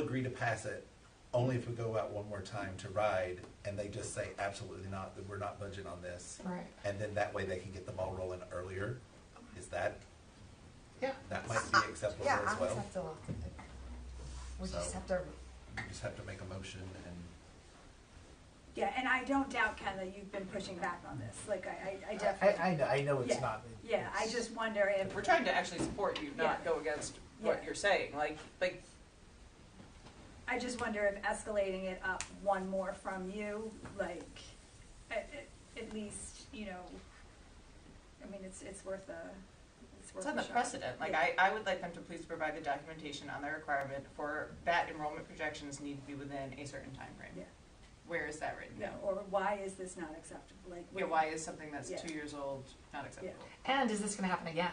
agree to pass it only if we go out one more time to ride and they just say absolutely not, that we're not budgeting on this. Right. And then that way they can get the ball rolling earlier. Is that, Yeah. that might be acceptable Yeah, I as would well? have to, we So- just have to, You just have to make a motion and, Yeah, and I don't doubt, Ken, that you've been pushing back on this, like, I, I- I definitely, I, I know, I know it's Yeah. not. yeah, I it's- just wonder if, We're trying to actually support you, not Yeah. go against what Yeah. you're saying, like, like, I just wonder if escalating it up one more from you, like, at, at, at least, you know, I mean, it's, it's worth a, it's worth it's a on the shot. precedent, like, Yeah. I, I would like them to please provide the documentation on the requirement for that enrollment projections need to be within a certain time Yeah. frame. Where is that written? No, or why is this not acceptable, like. Yeah, why is something that's Yeah. two years old not acceptable? And is this gonna happen again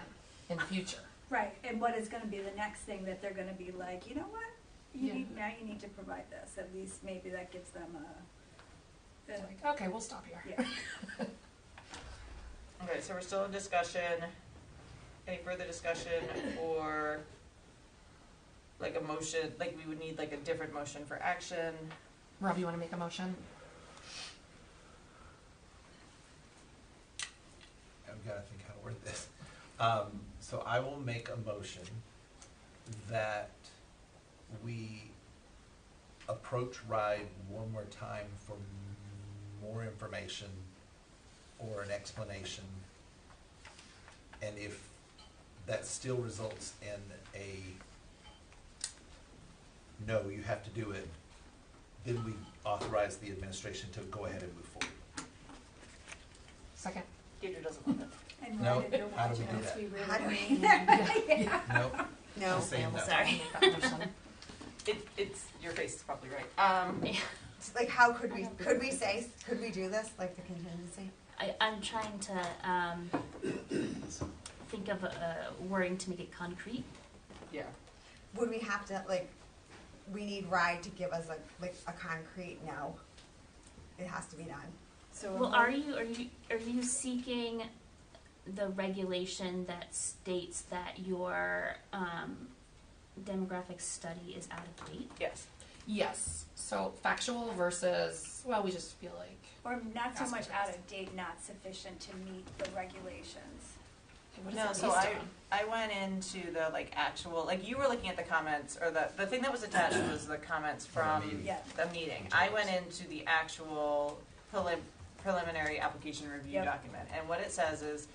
in the future? Right, and what is gonna be the next thing that they're gonna be like, you know what? You Yeah. need, now you need to provide this, at least maybe that gives them a, It's a- like, okay, we'll stop here. yeah. Okay, so we're still in discussion. Any further discussion or like a motion, like we would need like a different motion for action? Rob, you wanna make a motion? I've gotta Oh, think how to word this. Um, so I will make a motion that we approach RIDE one more time for more information or an explanation. And if that still results in a no, you have to do it, then we authorize the administration to go ahead and move forward. Second. Deidre doesn't want it. And No, why did your how do we do watches that? we really How do we- need? Yeah. No, no, Just saying I'm no. sorry. Make that motion. It, it's, your face is probably right. Um, It's Like, how could we, could we say, could we do this, like the contingency? I, I'm trying to um, think of a wording to make it concrete. yeah. Would we have to, like, we need RIDE to give us a, like, a concrete no? It has to be done. So. Well, are you are you are you seeking the regulation that states that your um, demographic study is out of date? Yes. Yes, so factual versus, well, we just feel like, Or not so Ask much me out first. of date, not sufficient to meet the regulations. what No, is it so based I, on? I went into the like actual, like you were looking at the comments or the, the thing that was attached was the comments From from the meeting. Yeah. the meeting. I went into the actual prelim- preliminary application review Yep. document. And what it says is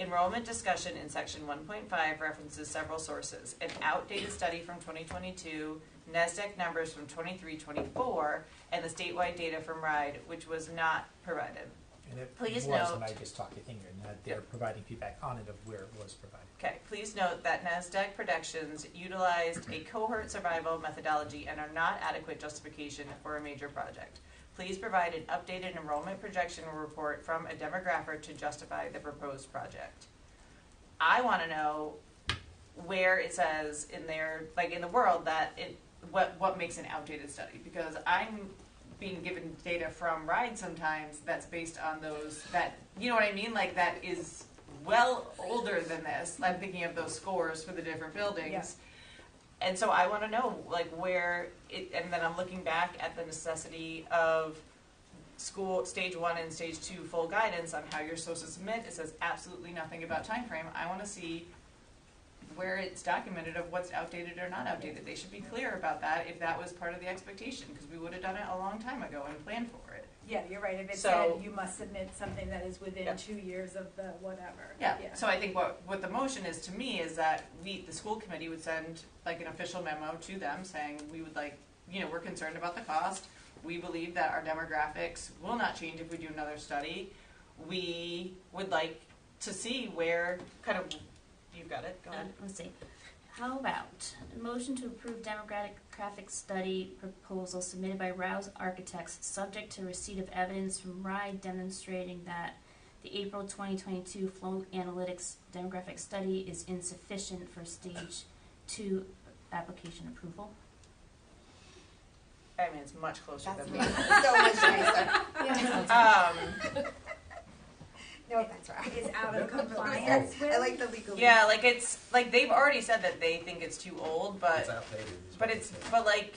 enrollment discussion in section one point five references several sources. An outdated study from twenty twenty-two, NASDAQ numbers from 23-24, and the statewide data from RIDE, which was not provided. And it Please was, note- and I just talked to Ingrid, that they're providing feedback on it of where it was provided. Okay, please note that NASDAQ productions utilized a cohort survival methodology and are not adequate justification for a major project. Please provide an updated enrollment projection report from a demographic to justify the proposed project. I want to know where it says in there, like in the world, that it, what, what makes an outdated study? Because I'm being given data from RIDE sometimes that's based on those, that, you know what I mean? Like that is well older than this. I'm thinking of those scores for the different buildings. And so I want to know, like, where it, and then I'm looking back at the necessity of school stage one and stage two full guidance on how you're supposed to submit. It says absolutely nothing about time frame. I want to see where it's documented of what's outdated or not outdated. They should be clear about that if that was part of the expectation, because we would have done it a long time ago and planned for it. Yeah, you're right, if it So- said you must submit something that is Yeah. within two years of the whatever. Yeah, so I think what, what the motion is to me is that we, the school committee would send like an official memo to them saying, we would like, you know, we're concerned about the cost. We believe that our demographics will not change if we do another study. We would like to see where, kind of, you've got it, go Uh, ahead. let's see. How about a motion to approve demographic study proposal submitted by Rouse Architects, subject to receipt of evidence from RIDE demonstrating that the April 2022 flow analytics demographic study is insufficient for stage two application approval. I mean, it's much closer That's than me, that. so much nicer. Um, No offense, RIDE. Is out of compliance with. I like the legal. yeah, like it's, like they've already said that they think it's too old, It's but, outdated. is but what it's, they said. but like,